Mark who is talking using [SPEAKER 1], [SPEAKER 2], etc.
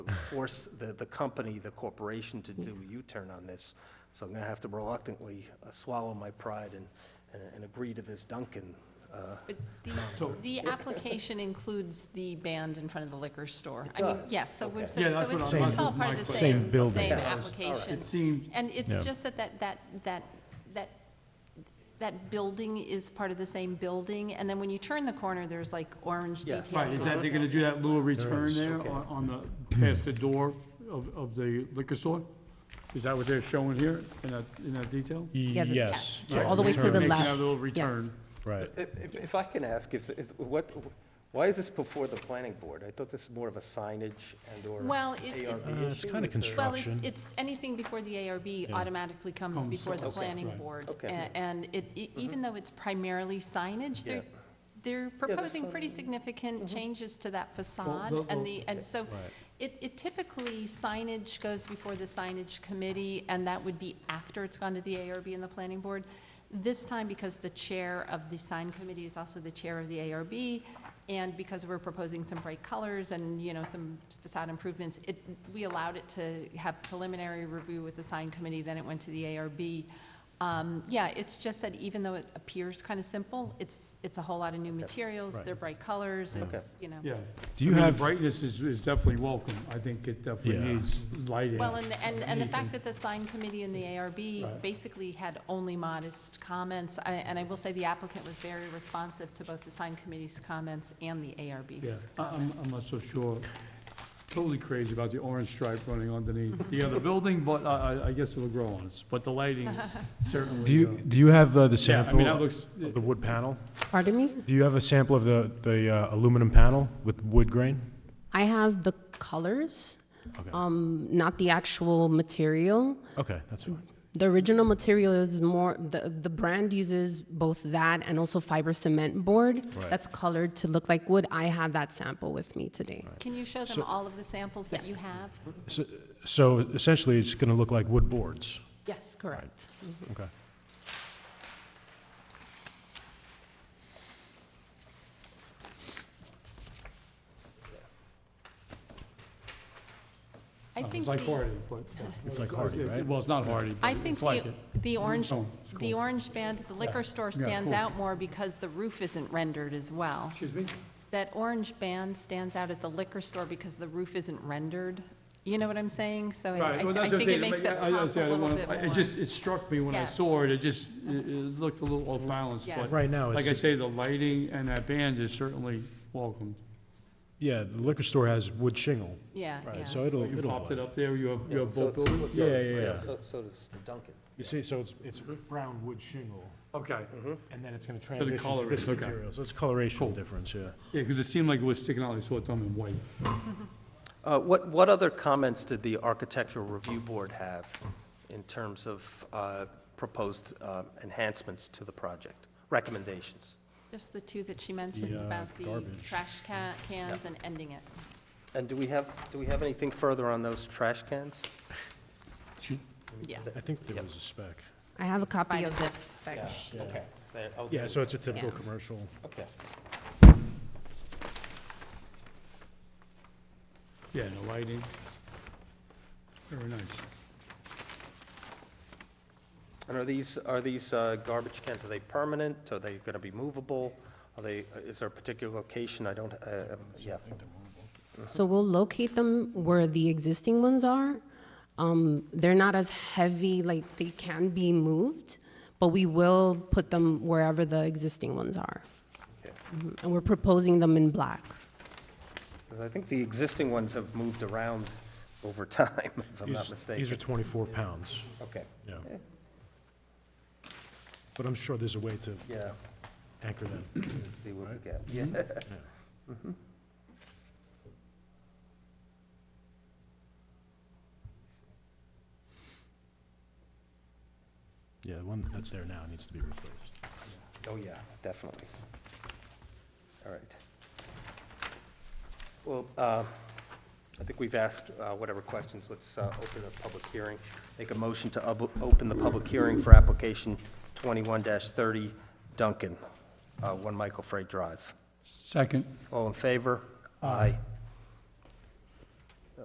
[SPEAKER 1] force the, the company, the corporation to do a U-turn on this. So I'm gonna have to reluctantly uh, swallow my pride and, and- and agree to this Duncan. uh,
[SPEAKER 2] But the, the application includes the band in front of the liquor store.
[SPEAKER 1] It
[SPEAKER 2] I mean,
[SPEAKER 1] does,
[SPEAKER 2] yes, so
[SPEAKER 1] okay.
[SPEAKER 2] we're, so
[SPEAKER 3] Yeah,
[SPEAKER 2] so
[SPEAKER 3] that's what
[SPEAKER 2] it's
[SPEAKER 3] I-
[SPEAKER 2] it's
[SPEAKER 3] that's
[SPEAKER 2] all
[SPEAKER 3] what
[SPEAKER 2] part
[SPEAKER 3] my
[SPEAKER 2] of the
[SPEAKER 3] question-
[SPEAKER 2] same,
[SPEAKER 4] Same building.
[SPEAKER 2] same
[SPEAKER 4] Yeah,
[SPEAKER 2] application.
[SPEAKER 3] It seemed,
[SPEAKER 2] And
[SPEAKER 4] Yeah.
[SPEAKER 2] it's just that that, that, that, that, that building is part of the same building, and then when you turn the corner, there's like orange
[SPEAKER 1] Yes.
[SPEAKER 2] detail.
[SPEAKER 3] right, is that they're gonna do that little return there
[SPEAKER 1] okay.
[SPEAKER 3] on, on the, past the door of, of the liquor store? Is that what they're showing here in that, in that detail?
[SPEAKER 2] Yeah, the-
[SPEAKER 4] Yes.
[SPEAKER 2] yes. So all the way to
[SPEAKER 4] return.
[SPEAKER 2] the
[SPEAKER 3] Making that
[SPEAKER 2] left,
[SPEAKER 3] little
[SPEAKER 2] yes.
[SPEAKER 3] return.
[SPEAKER 4] Right.
[SPEAKER 1] If, if- if I can ask, is, is, what, why is this before the planning board? I thought this was more of a signage and or
[SPEAKER 2] Well, it- it-
[SPEAKER 1] ARB
[SPEAKER 4] Uh, it's
[SPEAKER 1] issue,
[SPEAKER 4] kinda
[SPEAKER 1] is there-
[SPEAKER 4] construct-
[SPEAKER 2] Well, it's,
[SPEAKER 4] Construction.
[SPEAKER 2] it's, anything before the ARB automatically comes
[SPEAKER 3] Comes
[SPEAKER 2] before the
[SPEAKER 1] Okay.
[SPEAKER 2] planning
[SPEAKER 3] Right.
[SPEAKER 2] board.
[SPEAKER 1] Okay.
[SPEAKER 2] A- And it, e- even though it's primarily signage, they're,
[SPEAKER 1] Yeah.
[SPEAKER 2] they're
[SPEAKER 1] that's
[SPEAKER 2] proposing
[SPEAKER 1] fine.
[SPEAKER 2] pretty significant changes to that facade.
[SPEAKER 3] they'll-
[SPEAKER 2] And the, and so
[SPEAKER 4] Right.
[SPEAKER 2] it, it typically signage goes before the signage committee, and that would be after it's gone to the ARB and the planning board. This time, because the chair of the sign committee is also the chair of the ARB, and because we're proposing some bright colors and, you know, some facade improvements, it, we allowed it to have preliminary review with the sign committee, then it went to the ARB. Um, Yeah, it's just that even though it appears kind of simple, it's, it's a whole lot of new materials,
[SPEAKER 4] Right.
[SPEAKER 2] they're bright colors,
[SPEAKER 1] Okay.
[SPEAKER 2] it's, you know.
[SPEAKER 3] Yeah.
[SPEAKER 4] Do you
[SPEAKER 3] I mean,
[SPEAKER 4] have-
[SPEAKER 3] Brightness is, is definitely welcome. I think it definitely
[SPEAKER 4] Yeah.
[SPEAKER 3] needs lighting.
[SPEAKER 2] Well, and, and, and the fact
[SPEAKER 3] Anything.
[SPEAKER 2] that the sign committee and the ARB
[SPEAKER 3] Right.
[SPEAKER 2] basically had only modest comments, I- and I will say the applicant was very responsive to both the sign committee's comments and the
[SPEAKER 3] Yeah,
[SPEAKER 2] ARB's.
[SPEAKER 3] I- I'm, I'm not so sure, totally crazy about the orange stripe running underneath the other building, but I, I- I guess it'll grow on us, but the lighting certainly.
[SPEAKER 4] Do you,
[SPEAKER 3] uh,
[SPEAKER 4] do you have uh, the
[SPEAKER 3] Yeah, I mean,
[SPEAKER 4] sample
[SPEAKER 3] that
[SPEAKER 4] of
[SPEAKER 3] looks,
[SPEAKER 4] the wood panel?
[SPEAKER 5] Pardon me?
[SPEAKER 4] Do you have a sample of the, the uh, aluminum panel with wood grain?
[SPEAKER 5] I have the colors,
[SPEAKER 4] Okay,
[SPEAKER 5] um, not the actual material.
[SPEAKER 4] okay, that's fine.
[SPEAKER 5] The original material is more, the, the brand uses both that and also fiber cement board
[SPEAKER 4] Right.
[SPEAKER 5] that's colored to look like wood. I have that sample with me today.
[SPEAKER 2] Can you show them all of the samples that you
[SPEAKER 5] Yes.
[SPEAKER 2] have?
[SPEAKER 4] So- So essentially, it's going to look like wood boards?
[SPEAKER 5] Yes, correct.
[SPEAKER 4] Okay.
[SPEAKER 2] I think
[SPEAKER 3] Oh, uh, it's like
[SPEAKER 2] the,
[SPEAKER 3] Hardy, but.
[SPEAKER 4] It's like Hardy, right?
[SPEAKER 3] Well, it's not Hardy,
[SPEAKER 2] I
[SPEAKER 3] but
[SPEAKER 2] think
[SPEAKER 3] it's like
[SPEAKER 2] the,
[SPEAKER 3] it.
[SPEAKER 2] the orange,
[SPEAKER 3] Oh, it's
[SPEAKER 2] the
[SPEAKER 3] cool.
[SPEAKER 2] orange band, at the liquor store
[SPEAKER 3] Yeah,
[SPEAKER 2] stands
[SPEAKER 3] cool.
[SPEAKER 2] out more because the roof isn't rendered as well.
[SPEAKER 3] Excuse me?
[SPEAKER 2] That orange band stands out at the liquor store because the roof isn't rendered. You know what I'm saying? So I-
[SPEAKER 3] Right, well,
[SPEAKER 2] I I
[SPEAKER 3] that's what I'm
[SPEAKER 2] think it
[SPEAKER 3] saying.
[SPEAKER 2] makes it
[SPEAKER 3] I- I- I
[SPEAKER 2] pop a
[SPEAKER 3] say I don't
[SPEAKER 2] little
[SPEAKER 3] wanna-
[SPEAKER 2] bit
[SPEAKER 3] I-
[SPEAKER 2] more.
[SPEAKER 3] It just, it struck me when I
[SPEAKER 2] Yes.
[SPEAKER 3] saw it, it just, it it looked a little off balance,
[SPEAKER 2] Yes.
[SPEAKER 3] but.
[SPEAKER 4] Right now,
[SPEAKER 3] Like I
[SPEAKER 4] it's,
[SPEAKER 3] say, the lighting and that band is certainly welcome.
[SPEAKER 4] yeah, the liquor store has wood shingle,
[SPEAKER 2] Yeah, yeah.
[SPEAKER 4] right, so it'll,
[SPEAKER 3] You
[SPEAKER 4] it'll.
[SPEAKER 3] popped it up there, you have, you
[SPEAKER 1] Yeah,
[SPEAKER 3] have
[SPEAKER 1] so-
[SPEAKER 3] both buildings?
[SPEAKER 1] so- so
[SPEAKER 4] Yeah,
[SPEAKER 1] does-
[SPEAKER 4] yeah, yeah.
[SPEAKER 1] So, so does the Duncan.
[SPEAKER 4] You see, so it's, it's brown wood shingle,
[SPEAKER 3] Okay.
[SPEAKER 1] Mm-hmm.
[SPEAKER 4] and then it's going to
[SPEAKER 3] the
[SPEAKER 4] transition to this
[SPEAKER 3] coloration, okay.
[SPEAKER 4] material, so it's coloration
[SPEAKER 3] Cool.
[SPEAKER 4] difference, yeah.
[SPEAKER 3] Yeah, because it seemed like it was sticking out, I saw it done in white.
[SPEAKER 1] Uh, What, what other comments did the Architectural Review Board have in terms of uh, proposed uh, enhancements to the project, recommendations?
[SPEAKER 2] Just the two that she mentioned
[SPEAKER 4] uh,
[SPEAKER 2] about the
[SPEAKER 4] garbage.
[SPEAKER 2] trash ca- cans and ending it.
[SPEAKER 1] And do we have, do we have anything further on those trash cans?
[SPEAKER 2] Yes.
[SPEAKER 4] I think there was a spec.
[SPEAKER 5] I have a copy
[SPEAKER 2] Provided
[SPEAKER 5] of
[SPEAKER 2] this-
[SPEAKER 5] this spec sheet.
[SPEAKER 1] Okay. There- okay.
[SPEAKER 4] Yeah, so it's a typical
[SPEAKER 2] Yeah.
[SPEAKER 4] commercial.
[SPEAKER 1] Okay.
[SPEAKER 3] Yeah, and the lighting. Very nice.
[SPEAKER 1] And are these, are these uh, garbage cans, are they permanent? Are they going to be movable? Are they, uh, is there a particular location? I don't, uh, yeah.
[SPEAKER 5] So we'll locate them where the existing ones are. Um, They're not as heavy, like, they can be moved, but we will put them wherever the existing ones are.
[SPEAKER 1] Okay.
[SPEAKER 5] Mhm, And we're proposing them in black.
[SPEAKER 1] 'Cause I think the existing ones have moved around over time, if I'm not
[SPEAKER 4] These- These are
[SPEAKER 1] mistaken.
[SPEAKER 4] 24 pounds,
[SPEAKER 1] Okay,
[SPEAKER 4] yeah. But I'm sure there's a way to
[SPEAKER 1] yeah,
[SPEAKER 4] anchor them.
[SPEAKER 1] see what we get. Yeah. Mm-hmm.
[SPEAKER 4] Yeah, the one that's there now needs to be replaced.
[SPEAKER 1] Oh, yeah, definitely. All right. Well, uh, I think we've asked uh, whatever questions. Let's uh, open the public hearing. Make a motion to ub- open the public hearing for application 21-30 Duncan, uh, 1 Michael Freight Drive.
[SPEAKER 3] Second.
[SPEAKER 1] All in favor? Aye.